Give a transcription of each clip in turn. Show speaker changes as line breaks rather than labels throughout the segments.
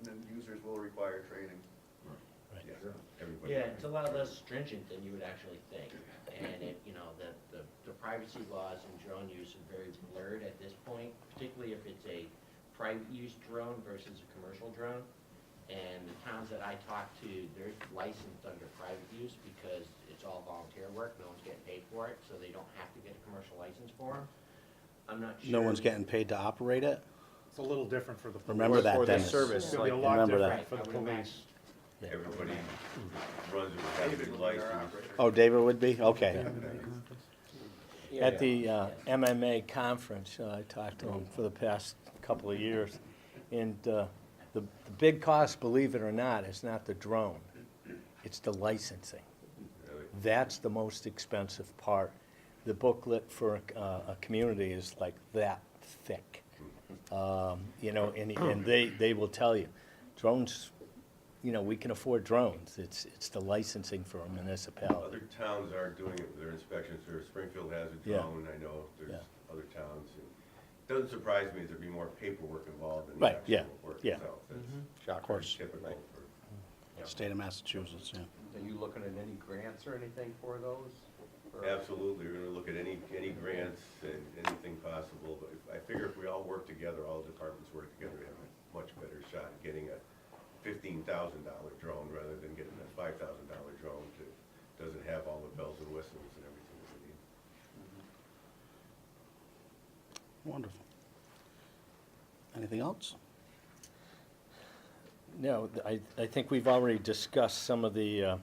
procedures will require training.
Right.
Yeah.
Everybody.
Yeah, it's a lot less stringent than you would actually think. And it, you know, the, the, the privacy laws in drone use are very blurred at this point, particularly if it's a private use drone versus a commercial drone. And the towns that I talk to, they're licensed under private use because it's all volunteer work, no one's getting paid for it, so they don't have to get a commercial license for them. I'm not sure.
No one's getting paid to operate it?
It's a little different for the police.
Remember that,
For the
Dennis.
service,
It's gonna be
like,
a lot
remember
different
Right,
for the
I would imagine.
police.
Everybody runs with having a
David would be our
license.
operator.
Oh, David would be? Okay.
yeah,
At the uh, MMA conference, uh, I talked to him for the past couple of years, and uh, the, the big cost, believe it or not, is not the drone, it's the licensing.
Really.
That's the most expensive part. The booklet for a, a community is like that thick. Um, You know, and, and they, they will tell you, drones, you know, we can afford drones, it's, it's the licensing for a municipality.
Other towns aren't doing it with their inspections, or Springfield has a
Yeah.
drone, I know there's
Yeah.
other towns. and Doesn't surprise me there'd be more paperwork involved than the
Right, yeah,
actual work
yeah.
itself. That's
shock
course.
Typical
Right.
for.
State of Massachusetts, yeah.
Are you looking at any grants or anything for those? Or-
Absolutely, we're gonna look at any, any grants and anything possible, but if- I figure if we all work together, all departments work together, we have a much better shot at getting a fifteen thousand dollar drone rather than getting a five thousand dollar drone that doesn't have all the bells and whistles and everything that we need.
Wonderful. Anything else? No, th- I, I think we've already discussed some of the, uh,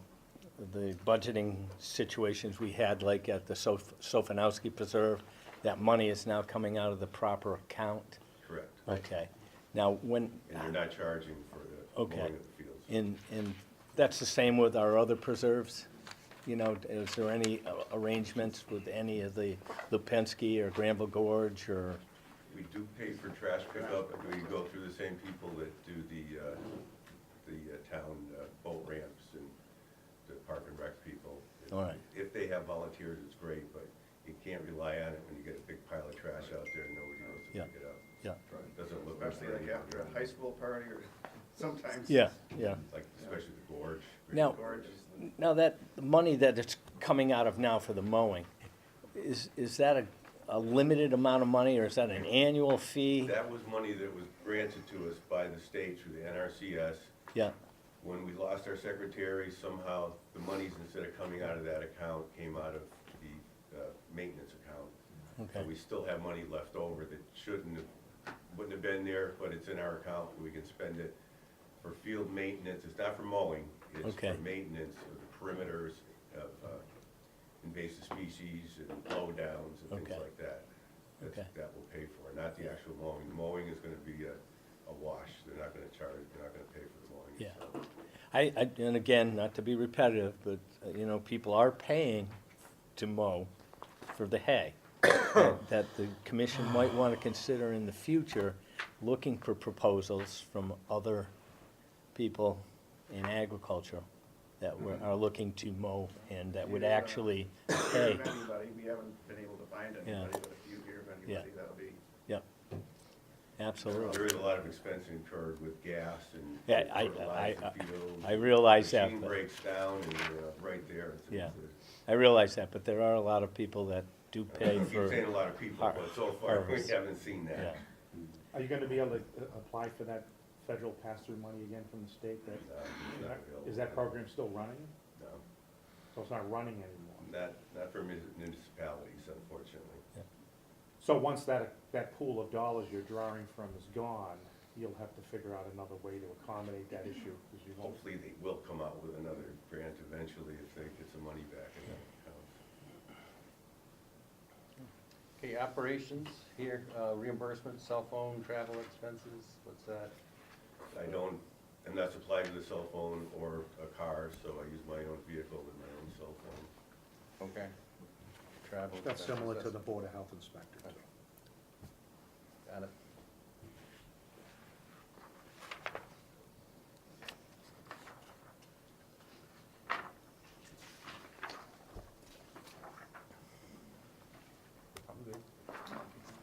the budgeting situations we had, like at the Sof- Sofinowski Preserve. That money is now coming out of the proper account.
Correct.
Okay. Now, when,
And you're not charging for the
Okay.
mowing of the fields.
and, and that's the same with our other preserves? You know, is there any uh, arrangements with any of the Lupinski or Granville Gorge or?
We do pay for trash pickup, and we go through the same people that do the, uh, the uh, town uh, boat ramps and the park and rec people.
All right.
If they have volunteers, it's great, but you can't rely on it when you get a big pile of trash out there and nobody goes to
Yeah.
pick it up.
Yeah,
Doesn't look
Especially like
pretty
after a high school party or sometimes.
yeah, yeah.
Like, especially the gorge.
Now-
Gorge is the-
Now, that, the money that it's coming out of now for the mowing, is, is that a, a limited amount of money, or is that an annual fee?
That was money that was granted to us by the state through the NRCS.
Yeah,
When we lost our secretary, somehow the monies, instead of coming out of that account, came out of the uh, maintenance account. So
Okay.
we still have money left over that shouldn't have, wouldn't have been there, but it's in our account, we can spend it for field maintenance, it's not for mowing, it's for
Okay.
maintenance of the perimeters of uh, invasive species and blowdowns and things
Okay.
like that. That's-
Okay.
That will pay for, it, not the actual mowing, The mowing is gonna be a a wash, they're not gonna charge, they're not gonna pay for the mowing
Yeah.
itself.
I, I, and again, not to be repetitive, but, uh, you know, people are paying to mow for the hay. That that the commission might wanna consider in the future, looking for proposals from other people in agriculture that were, are looking to mow and that would
Yeah.
actually
If you
pay.
hear of anybody, we haven't been able to find
Yeah.
anybody, but if you hear of anybody, that'll be.
Yep,
There
absolutely.
is a lot of expense incurred with gas and.
Yeah, I- I-
fertilizer
I-
fields.
I realize that,
Machine
but-
breaks down and you're right there. It's-
Yeah.
it's-
I realize that, but there are a lot of people that do
I
pay
keep saying
for,
a lot of people,
har-
but so far we
harvest.
haven't seen that.
yeah,
Are you gonna be able to uh, apply for that federal pass-through money again from the state? That
No, Uh, it's not available.
Is that program still running?
No,
So it's not running anymore?
not, not for mun- municipalities unfortunately.
So once that, that pool of dollars you're drawing from is gone, you'll have to figure out another way to accommodate that issue, because you won't.
Hopefully they will come out with another grant eventually if they get some money back in that account.
Okay, operations here, uh, reimbursement, cell phone, travel expenses, what's that?
I don't, am not supplied with a cell phone or a car, so I use my own vehicle with my own cell phone.
Okay. Travel.
That's
expenses,
similar to the
that's-
Board of Health Inspector, too.